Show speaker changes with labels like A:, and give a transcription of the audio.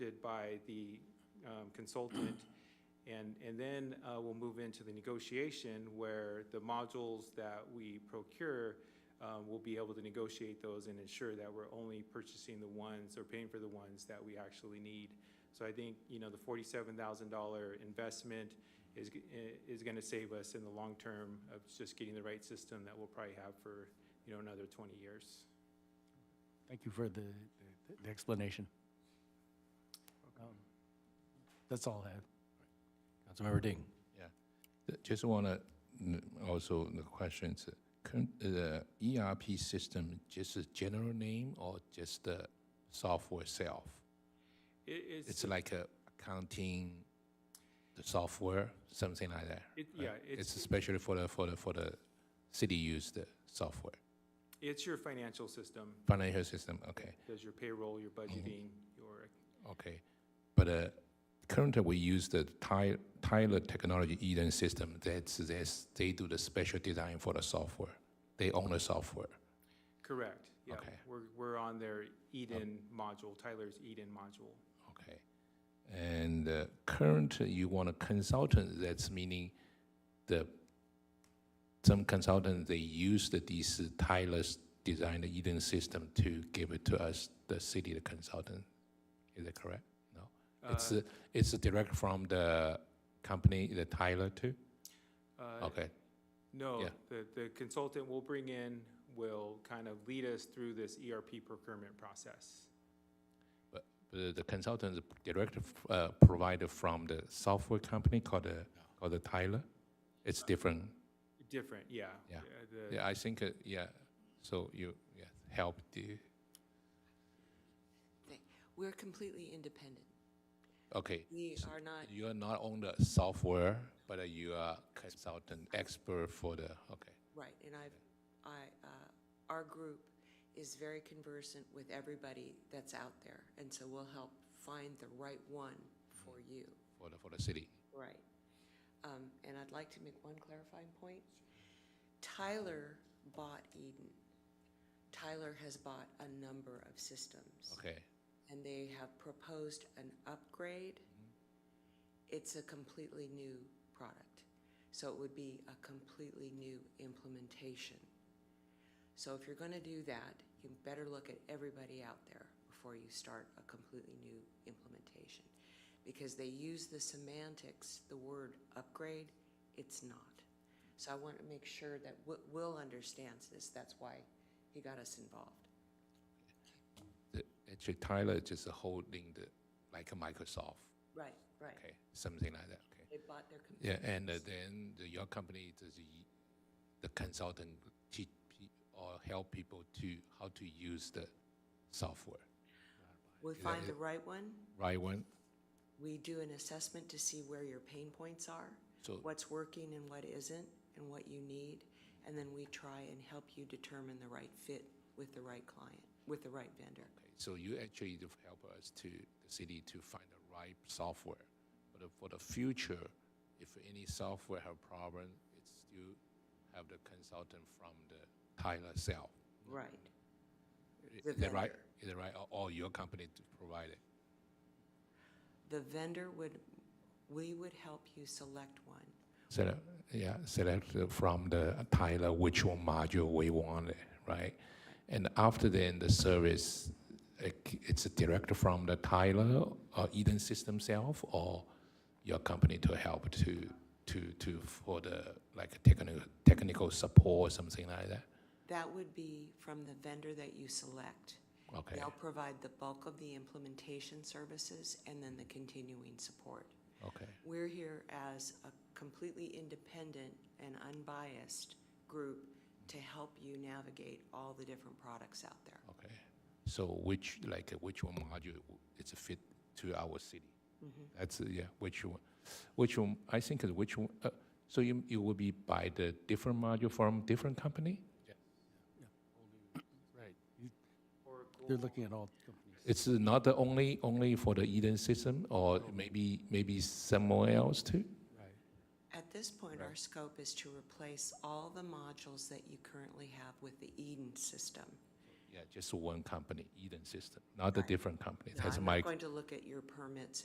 A: presented by the um, consultant. And, and then uh, we'll move into the negotiation where the modules that we procure, um, we'll be able to negotiate those and ensure that we're only purchasing the ones or paying for the ones that we actually need. So I think, you know, the forty-seven thousand dollar investment is, g- i- is gonna save us in the long term of just getting the right system that we'll probably have for, you know, another twenty years.
B: Thank you for the, the- the explanation. Um, That's all I have.
C: Councilmember Ding.
D: Uh, Just want to, also the questions, uh, current- uh, ERP system, just a general name or just the software itself?
A: It,
D: It's like a accounting, the software, something like that?
A: It,
D: right?
A: yeah,
D: It's
A: it's,
D: especially for the, for the, for the city use the software,
A: it's your financial system,
D: financial system, okay,
A: does your payroll, your budgeting, your,
D: okay. But uh, currently, we use the Ty- Tyler Technology Eden system, that's, that's, they do the special design for the software. They own the software.
A: correct, yeah.
D: Okay.
A: We're, we're on their Eden module, Tyler's Eden module.
D: Okay. And uh, current, you want a consultant, that's meaning the, some consultant, they use the, these Tyler's design, the Eden system to give it to us, the city, the consultant. Is that correct? No? It's,
A: Uh,
D: uh, it's direct from the company, the Tyler too?
A: uh,
D: Okay,
A: No,
D: yeah.
A: the, the consultant we'll bring in will kind of lead us through this ERP procurement process.
D: the the consultant is direct uh, provider from the software company called, the- called the Tyler? It's different.
A: Different, yeah.
D: Yeah.
A: the-
D: Yeah, I think, uh, yeah, so you, yeah, help the,
E: We're completely independent.
D: okay.
E: We
D: so
E: are not,
D: You are not on the software, but uh, you are consultant expert for the, okay,
E: right, and I've, I, uh, our group is very conversant with everybody that's out there, and so we'll help find the right one for you.
D: for the, for the city.
E: Right. Um, and I'd like to make one clarifying point. Tyler bought Eden. Tyler has bought a number of systems.
D: Okay,
E: And they have proposed an upgrade. It's a completely new product. So it would be a completely new implementation. So if you're going to do that, you better look at everybody out there before you start a completely new implementation. Because they use the semantics, the word upgrade, it's not. So I want to make sure that Wi- Will understands this. That's why he got us involved.
D: The- actually Tyler is just holding the, like a Microsoft,
E: Right, right.
D: okay, something like that, okay.
E: They bought their computer.
D: Yeah, and uh, then the- your company, does the- the consultant teach pe- or help people to, how to use the software,
E: We find the right one,
D: right one?
E: we do an assessment to see where your pain points are,
D: So-
E: what's working and what isn't, and what you need, and then we try and help you determine the right fit with the right client, with the right vendor.
D: Okay, So you actually do help us to, the city to find the right software. But uh, for the future, if any software have problem, it's still have the consultant from the Tyler cell.
E: Right,
D: Is
E: The
D: that right? Is that right? Or- Or your company to provide it?
E: the vendor would, we would help you select one.
D: So, yeah, select uh, from the Tyler which one module we want, it, right? And after then, the service, like, it's direct from the Tyler or Eden system self or your company to help to, to, to, for the, like, technical, technical support, something like that?
E: That would be from the vendor that you select.
D: Okay.
E: They'll provide the bulk of the implementation services and then the continuing support.
D: Okay,
E: We're here as a completely independent and unbiased group to help you navigate all the different products out there.
D: okay. So which, like, uh, which one module it's a fit to our city? That's, uh, yeah, which one, which one, I think is which one, uh, so you, you will be by the different module from different company?
B: Right. They're looking at all companies.
D: It's not the only, only for the Eden system, or maybe, maybe somewhere else too?
E: At this point, our scope is to replace all the modules that you currently have with the Eden system.
D: Yeah, just one company, Eden System, not a
E: Right.
D: different company.
E: No,
D: That's
E: I'm
D: my
E: not going to look at your permits